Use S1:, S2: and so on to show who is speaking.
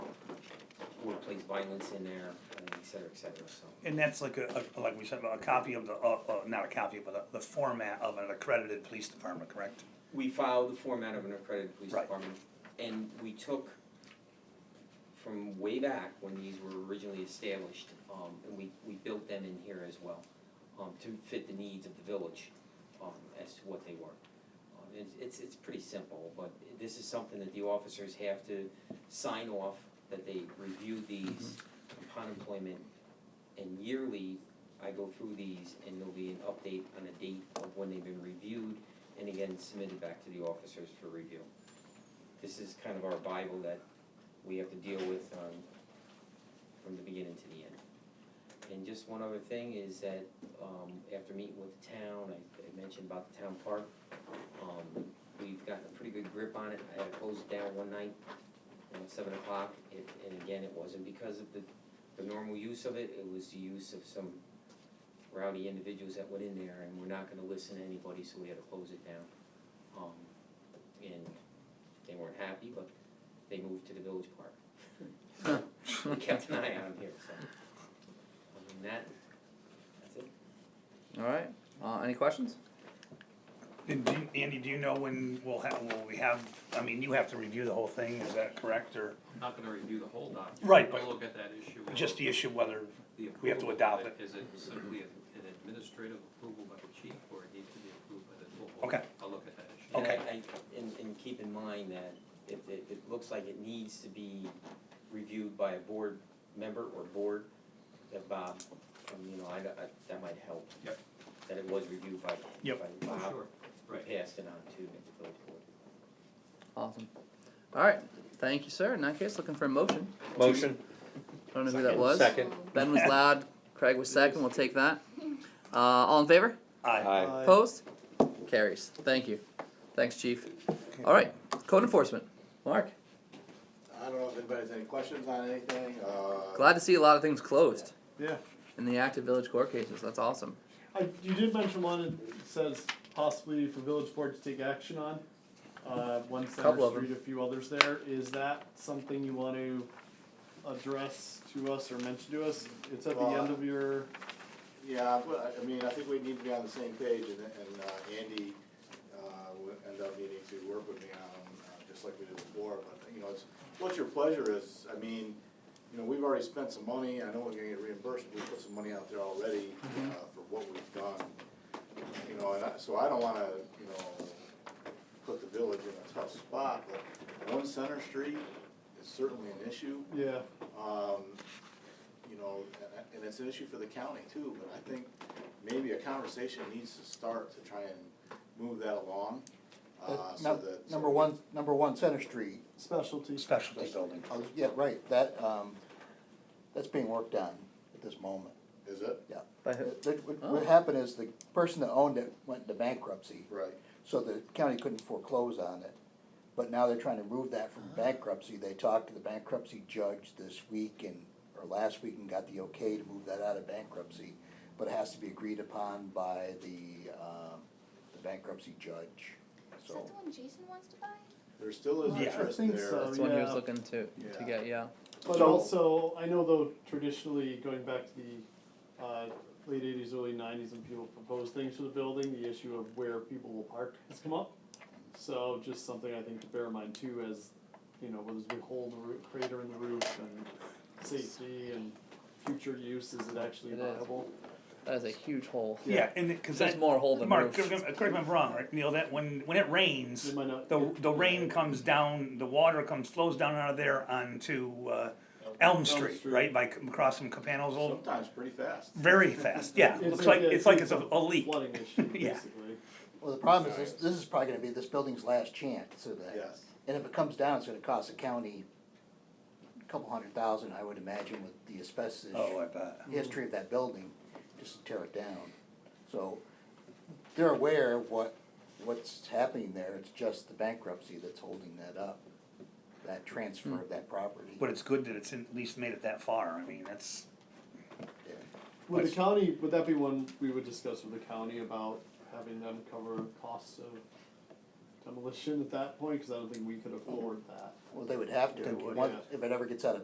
S1: police violence in there, and et cetera, et cetera, so.
S2: And that's like a, a- like we said, a copy of the, uh, uh, not a copy, but a- the format of an accredited police department, correct?
S1: We filed the format of an accredited police
S2: Right.
S1: department, and we took from way back when these were originally established, um, and we, we built them in here as well, um, to fit the needs of the village, um, as to what they were. Um, it's, it's, it's pretty simple, but this is something that the officers have to sign off, that they review these upon employment, and yearly, I go through these, and there'll be an update on a date of when they've been reviewed, and again submitted back to the officers for review. This is kind of our bible that we have to deal with um from the beginning to the end. And just one other thing is that um after meeting with the town, I I mentioned about the town park. Um we've gotten a pretty good grip on it, I had to close it down one night, you know, seven o'clock, it and again, it wasn't because of the the normal use of it, it was the use of some rowdy individuals that went in there and we're not gonna listen to anybody, so we had to close it down. Um, and they weren't happy, but they moved to the village park. We kept an eye on them here, so. I mean, that, that's it.
S3: All right. Uh, any questions?
S2: And do, you- Andy, do you know when we'll have, will we have, I mean, you have to review the whole thing, is that correct, or
S4: I'm not gonna review the whole document.
S2: Right, but-
S4: I'll look at that issue. and
S2: just the issue whether,
S4: the
S2: we have to
S4: approval of
S2: adopt it.
S4: Is it simply a- an administrative approval by the chief, or it needs to be approved by the full board?
S2: Okay.
S4: I'll look at that issue.
S2: Okay.
S1: And I, I- and, and keep in mind that it, it, it looks like it needs to be reviewed by a board member or board, that Bob, um, you know, I, I, that might help.
S4: Yep.
S1: That it was reviewed by,
S2: Yep.
S1: by
S4: Oh,
S1: Bob,
S4: Sure,
S1: who
S4: right.
S1: passed it on to the village board.
S3: Awesome. All right. Thank you, sir. In that case, looking for a motion.
S5: Motion,
S3: I don't know who that was.
S5: second.
S3: Ben was loud. Craig was second. We'll take that. Uh, all in favor?
S2: aye,
S5: Aye.
S3: Opposed? Carries. Thank you. Thanks, chief. All right. Code enforcement. Mark,
S6: I don't know if anybody has any questions on anything, uh.
S3: glad to see a lot of things closed
S7: Yeah,
S3: in the active village court cases. That's awesome.
S7: I, you did mention one that says possibly for village board to take action on. Uh, one
S3: Couple
S7: Center
S3: of 'em.
S7: Street, a few others there, is that something you want to address to us or mention to us? It's at the
S6: Well,
S7: end of your,
S6: Yeah, but, I- I mean, I think we need to be on the same page, and, and uh, Andy, uh, would end up needing to work with me on, uh, just like we did before, but, you know, it's, what your pleasure is, I mean, you know, we've already spent some money, I know we're gonna get reimbursed, we put some money out there already, uh, for what we've done. You know, and I, so I don't wanna, you know, put the village in a tough spot, but one Center Street is certainly an issue
S7: yeah,
S6: um, you know, and- and it's an issue for the county too, but I think maybe a conversation needs to start to try and move that along. uh, so
S8: Num-
S6: that- so-
S8: Number one, number one, Center Street,
S7: specialty.
S2: specialty building.
S8: I was, yeah, right, that, um, that's being worked on at this moment,
S6: Is it?
S8: yeah.
S3: By who?
S8: That- that- What,
S3: Oh.
S8: what happened is the person that owned it went into bankruptcy,
S6: Right.
S8: so the county couldn't foreclose on it. But now they're trying to move that
S3: Ah.
S8: from bankruptcy, they talked to the bankruptcy judge this week and, or last week and got the okay to move that out of bankruptcy. But it has to be agreed upon by the, um, the bankruptcy judge,
S9: Is
S8: so.
S9: that the one Jason wants to buy?
S6: There still is
S7: Yeah, I
S6: interest
S7: think
S6: there.
S7: so.
S3: That's the one he was
S7: yeah.
S3: looking to to
S6: Yeah.
S3: get. Yeah.
S7: But
S8: So-
S7: also, I know though traditionally, going back to the, uh, late eighties, early nineties, when people propose things for the building, the issue of where people will park has come up. So just something I think to bear in mind too, as, you know, whether we hold the roo- crater in the roof and safety and future use, is it actually
S3: It is.
S7: viable?
S3: That is a huge hole.
S2: Yeah, and, it- cause
S3: There's
S2: that,
S3: more hole than
S2: Mark,
S3: roof.
S2: correct me if I'm wrong, right, Neil, that when, when it rains,
S7: It might not-
S2: the, the rain comes down, the water comes, flows down out of there onto, uh, Elm Street,
S7: Street.
S2: right, by c- crossing Capano's old,
S6: Sometimes pretty fast.
S2: very fast, yeah,
S7: It's
S2: looks like,
S7: yeah,
S2: it's like it's a,
S7: a
S2: a leak.
S7: Flooding issue, basically.
S2: Yeah.
S8: Well, the problem is, this, this is probably gonna be this building's last chance of that.
S6: Yes.
S8: And if it comes down, it's gonna cost the county a couple hundred thousand, I would imagine, with the asbestos
S2: Oh, I bet.
S8: history of that building, just to tear it down. So, they're aware of what, what's happening there, it's just the bankruptcy that's holding that up, that transfer of that property.
S2: But it's good that it's in- at least made it that far, I mean, that's,
S8: Yeah.
S7: Would the county, would that be one we would discuss with the county about having them cover costs of demolition at that point? Cause I don't think we could afford that.
S8: Well, they would have to,
S7: They would,
S8: once,
S7: yeah.
S8: if it ever gets out of